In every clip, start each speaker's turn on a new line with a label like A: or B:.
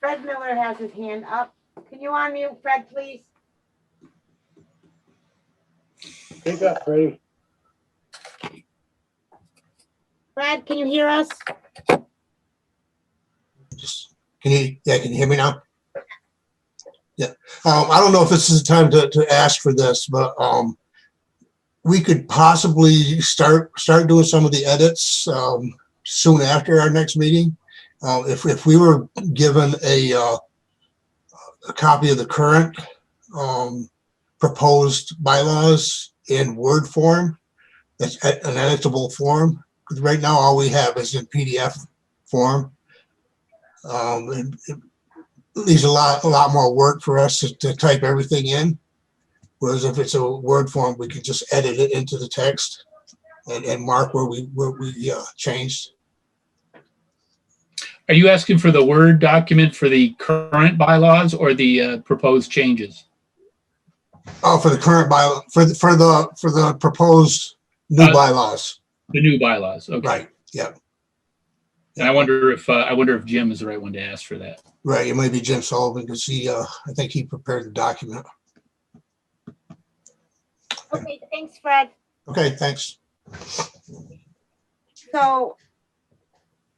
A: Fred Miller has his hand up. Can you unmute Fred, please?
B: Take that, Freddie.
A: Fred, can you hear us?
C: Just, can you, yeah, can you hear me now? Yeah, um, I don't know if this is the time to, to ask for this, but, um, we could possibly start, start doing some of the edits, um, soon after our next meeting. Uh, if, if we were given a, uh, a copy of the current, um, proposed bylaws in Word form, that's e- an editable form, because right now all we have is in PDF form. Um, it- it leaves a lot, a lot more work for us to, to type everything in. Whereas if it's a Word form, we could just edit it into the text and, and mark where we, where we, uh, changed.
D: Are you asking for the Word document for the current bylaws or the uh, proposed changes?
C: Oh, for the current by, for the, for the, for the proposed new
D: Uh,
C: bylaws,
D: The new bylaws, okay.
C: right, yeah,
D: And I wonder if, uh, I wonder if Jim is the right one to ask for that.
C: right, it might be Jim Sullivan, because he, uh, I think he prepared the document.
A: Okay, thanks, Fred.
C: Okay, thanks.
A: So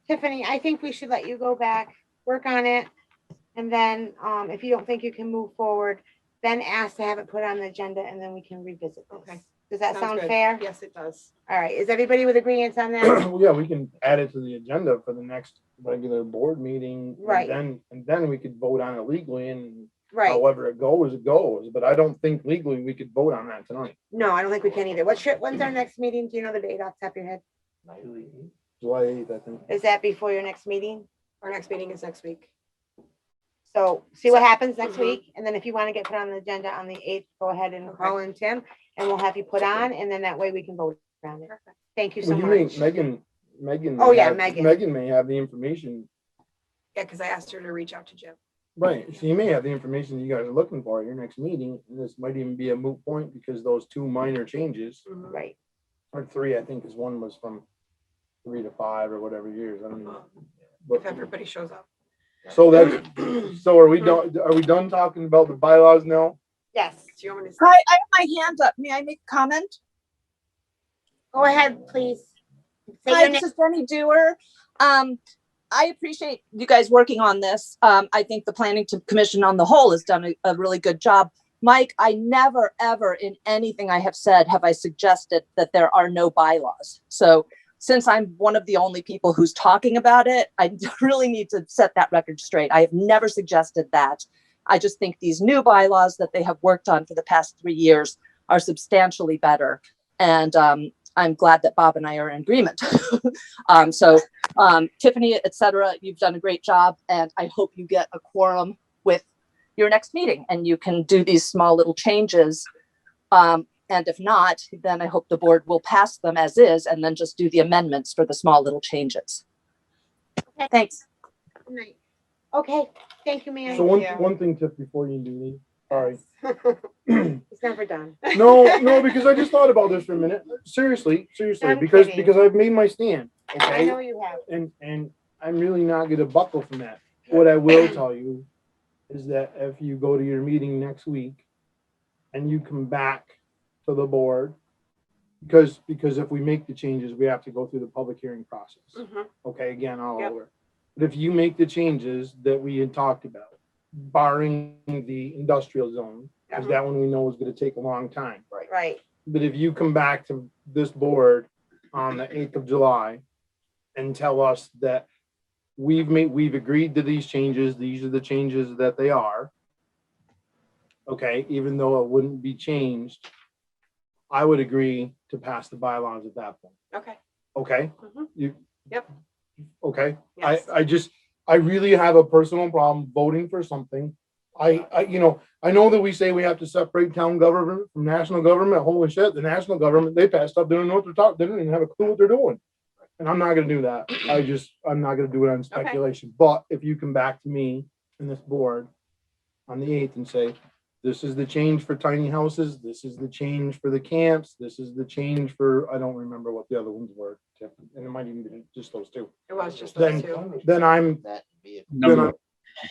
A: Tiffany, I think we should let you go back, work on it. And then um, if you don't think you can move forward, then ask to have it put on the agenda and then we can revisit this.
E: Okay.
A: Does that sound
E: good.
A: fair?
E: Yes, it does.
A: All right, is everybody with agreeance on that?
B: Well, Yeah, we can add it to the agenda for the next regular board meeting. and
A: Right.
B: Then, and then we could vote on it legally and
A: Right,
B: however it goes, it goes, but I don't think legally we could vote on that tonight.
A: no, I don't think we can either. What's your, when's our next meeting? Do you know the date off the top of your head?
B: July eighth, I think.
A: Is that before your next meeting?
E: Our next meeting is next week.
A: So mm-hmm. see what happens next
E: Mhm.
A: week, and then if you want to get put on the agenda on the eighth, go ahead and call in Tim, and we'll have you put on, and then that way we can vote around it.
E: Perfect.
A: Thank you so
B: Well, you mean
A: much.
B: Megan, Megan.
A: Oh,
B: may
A: yeah,
B: have-
A: Megan.
B: Megan may have the information,
E: Yeah, because I asked her to reach out to Jim.
B: right, she may have the information you guys are looking for at your next meeting, and this might even be a moot point because those two minor changes,
A: Right,
B: or three, I think, is one was from three to five or whatever years, I don't know.
E: Um,
B: But-
E: If everybody shows up.
B: So that's, so are we done, are we done talking about the bylaws now?
A: yes,
E: Do you want me to?
F: Hi, I have my hand up. May I make a comment?
A: go ahead, please. Say
F: Hi,
A: your
F: this
A: name,
F: is Jenny Dewar. Um, I appreciate you guys working on this. Um, I think the planning to- commission on the whole has done a, a really good job. Mike, I never, ever in anything I have said, have I suggested that there are no bylaws. So since I'm one of the only people who's talking about it, I really need to set that record straight. I have never suggested that. I just think these new bylaws that they have worked on for the past three years are substantially better. And um, I'm glad that Bob and I are in agreement. um, so, um, Tiffany, et cetera, you've done a great job, and I hope you get a quorum with your next meeting and you can do these small little changes. Um, and if not, then I hope the board will pass them as is and then just do the amendments for the small little changes.
A: Okay.
F: Thanks.
A: Good night. Okay, thank you,
B: So
A: Mary.
B: one,
E: you.
B: one thing, Tiff, before you do leave, sorry.
A: It's never done.
B: No, no, because I just thought about this for a minute. Seriously, seriously,
A: I'm
B: because,
A: kidding.
B: because I've made my stand,
A: I know
B: okay?
A: you have.
B: And, and I'm really not gonna buckle from that. What I will tell you is that if you go to your meeting next week and you come back to the board, because, because if we make the changes, we have to go through the public hearing process.
A: Mm-hmm.
E: Mhm.
B: okay, again, all
E: Yep.
B: over. But if you make the changes that we had talked about, barring the industrial zone, because
E: Mhm.
B: that one we know is gonna take a long time. Right.
A: Right,
B: But if you come back to this board on the eighth of July and tell us that we've made, we've agreed to these changes, these are the changes that they are. Okay, even though it wouldn't be changed, I would agree to pass the bylaws at that point,
E: Okay.
B: okay?
E: Mhm.
B: You.
E: Yep.
B: Okay, I,
E: Yes.
B: I just, I really have a personal problem voting for something. I, I, you know, I know that we say we have to separate town government from national government. Holy shit, the national government, they passed stuff. They don't know what they're talking, they don't even have a clue what they're doing. And I'm not gonna do that. I just, I'm not gonna do it on speculation. But if you come back to me and this board on the eighth and say, this is the change for tiny houses, this is the change for the camps, this is the change for, I don't remember what the other ones were. Tiff, And it might even be just those two
E: It was just
B: then,
E: those two.
B: then I'm,
G: That vehicle.
B: then
D: Number
B: I'm,